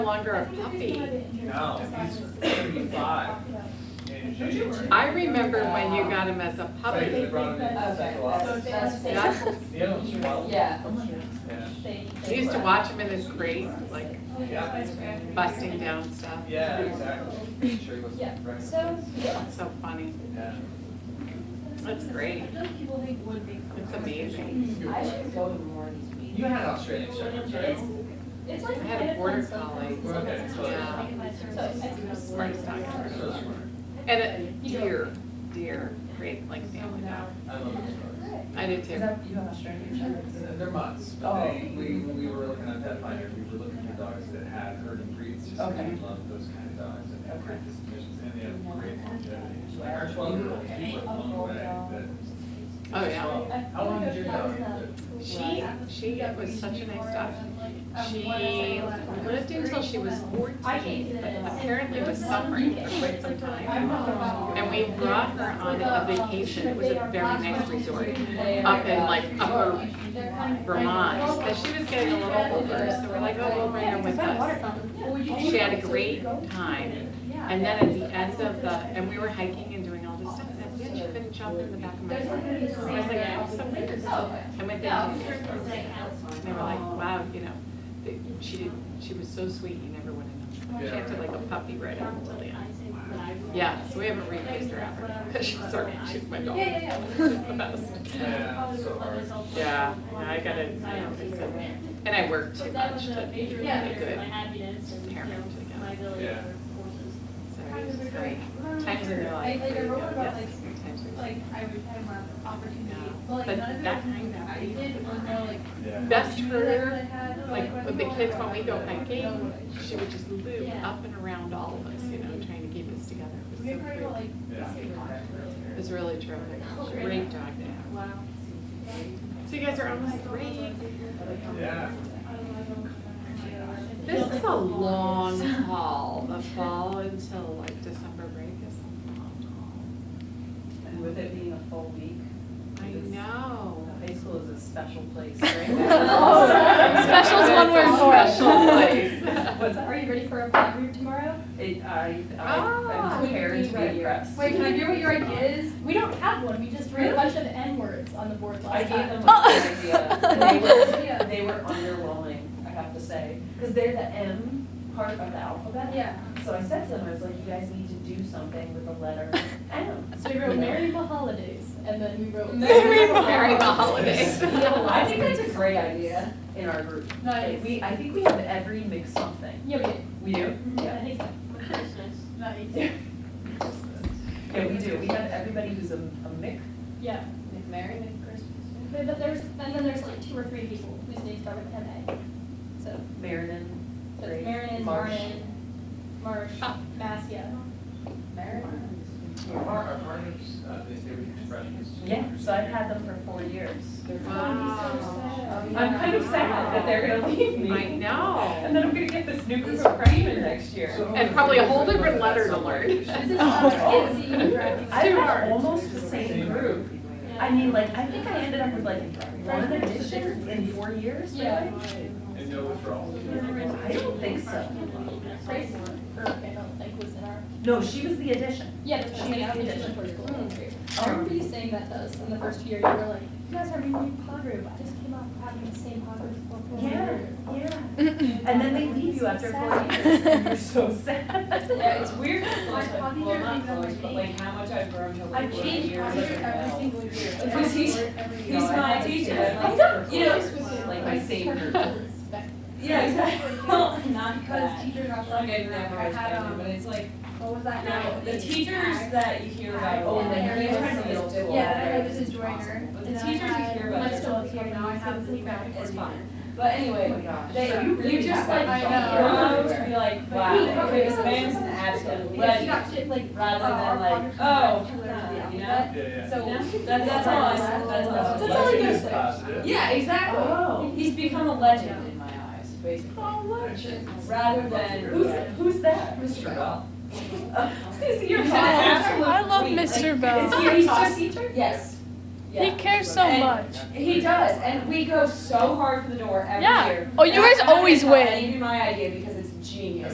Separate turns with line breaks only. no longer a puppy.
No, he's thirty-five in January.
I remember when you got him as a
So they
puppy.
brought him in to
Okay,
central office.
that's, that's,
Yeah.
The other one's twelve.
yeah.
Yeah.
You used to watch him in his crate, like
Yeah,
busting down stuff.
yeah, exactly. Pretty sure he was
Yeah.
pregnant.
So,
That's so funny.
Yeah.
That's great. It's amazing.
I should go to more of these
You
meetings.
had Australian Shepherds, right?
it's, it's like.
I had a border collie.
Okay, so-
Yeah.
So,
Smartest dog
So
ever.
smart.
And a deer, deer, great, like family dog.
I love those dogs.
I did
Is
too.
that, you have Australian shepherds?
Uh, They're months, but
Oh.
they, we, when we were looking on Pet Finder, we were looking for dogs that had herding breeds, just 'cause we
Okay.
love those kind of dogs and have
Okay.
great dispositions and they have great longevity. Like our twelve-year-old, he went a long way, but.
Oh, yeah.
Well, How long did your dog live?
She, she was such a nice dog. She lived until she was fourteen, but apparently was suffering for quite some time. And we brought her on a vacation, it was a very nice resort, up in like upper Vermont. But she was getting a little older, so we're like, oh, we'll bring her with us. She had a great time. And then at the end of the, and we were hiking and doing all this stuff, and at the end, she couldn't jump in the back of my car. So I was like, oh, so weird. And with the, and they were like, wow, you know, they- she did, she was so sweet, you never would have known. She
Yeah.
acted like a puppy right up until the end. Yeah, so we haven't replaced her ever, because she's our, she's my dog. She's the best.
Yeah, so hard.
Yeah, yeah, I gotta, you know, it's a- and I work too much to be a good parent again.
Yeah.
So it's great. Times in their life.
Like, like I wrote about,
Yes, times in their life.
Like, I would have an opportunity,
Yeah.
but like
But
none of
that
that
kind
I did was more like.
Yeah.
Best
that I
herder,
had,
like with the kids when we go hiking,
No,
she would just loop up and around all of us, you know, trying to keep us together. It was
We
so
were
cool.
like.
Yeah.
It was really terrific. Great dog to have.
Wow.
So you guys are almost three.
Yeah.
This is a long haul. The fall until like December break is a long
And with it being a full week,
haul. I know.
high school is a special place, right?
Special's one word, special place.
What's that?
Are you ready for a play group tomorrow?
It, I,
Ah.
I, I'm prepared to be impressed.
Wait, can I hear what your idea is? We don't have one, we just read a bunch of N-words on the board
I
last
gave
time.
them a good idea. and They were, they were underwhelming, I have to say, because they're the M part of the alphabet.
Yeah,
So I said to them, I was like, you guys need to do something with the letter M.
so we wrote Maryable Holidays, and then we wrote.
Merry the holidays.
I think that's a great idea in our group.
Nice.
We, I think we have every mix something.
Yeah, we did.
We do?
I
Yeah,
think so. Nice.
yeah, we do. We have everybody who's a, a mix.
Yeah.
Merry
But but there's, and then there's like two or three people whose names start with M-A. So,
Marinan,
so
Gray,
it's Marion,
Marsh.
Martin, Marsh, Massia.
Marinan.
Our, our partners, uh, they, they were huge freshmen.
Yeah, so I've had them for four years.
Wow.
I'm kind of sad that they're gonna leave me.
I
And
know.
then I'm gonna get this new group of freshmen next year.
So-
And probably a whole different letter to learn.
This is
Oh.
not kids, right?
I have almost the same group. I mean, like, I think I ended up with like one addition in four years, really?
Yeah.
And no withdrawals.
I don't think so.
Grace, her parent, like, was in our,
No, she was the addition.
yeah, that's what I'm saying, I
She was
auditioned
the
for school.
Hmm.
I remember you saying that to us in the first year, you were like, you guys are renewing pod group, I just came off having the same pod group for four
Yeah,
years.
yeah. And then they leave you after four
Sad.
years, and you're so sad.
Yeah, it's weird, how close I-
Bobby
well,
Darren
not
knows
close, but
me.
like how much I've grown to like.
I've changed
years
pod
ago
group every
now.
single year. like,
Because he's-
every year.
He's my teacher,
I
like, you know.
Like Oh my same group.
Yeah, exactly, well, not
Because
that,
teachers are
like
like,
I've never
I
always
had,
been,
um,
but it's like,
what was that
now,
now?
the teachers that you hear about.
Oh,
in
the
middle
teachers
school
in middle
is
school.
Yeah, I know
different.
this is Joyner.
But the teachers you hear about.
I'm
is
still
different.
here now, I have the
It's
back.
fine, but
Oh my
anyway,
gosh.
they,
So
you
really
just
have
like,
that job.
grow to be like,
But
wow,
he-
okay, this
okay.
man's an absolute
Because she
legend.
got shit like.
rather
uh, our
than like,
progress
oh,
was actually
you know?
alphabet.
Yeah, yeah.
So.
That, that's all I, that's all. I-
That's all I
Lexington
do.
is positive.
Yeah, exactly.
Oh.
He's become a legend in my eyes, basically.
Oh,
Rather than,
Who's, who's that?
Mr. Bell.
You're
He's an absolute
I love
queen.
Mr.
Like,
Bell.
Is he a class teacher? Yes.
He
Yeah.
cares so
And-
much.
He does, and we go so hard for the door every
Yeah.
year.
Oh, you
And
guys
I'm not
always
gonna tell
win.
any of you my idea because it's genius.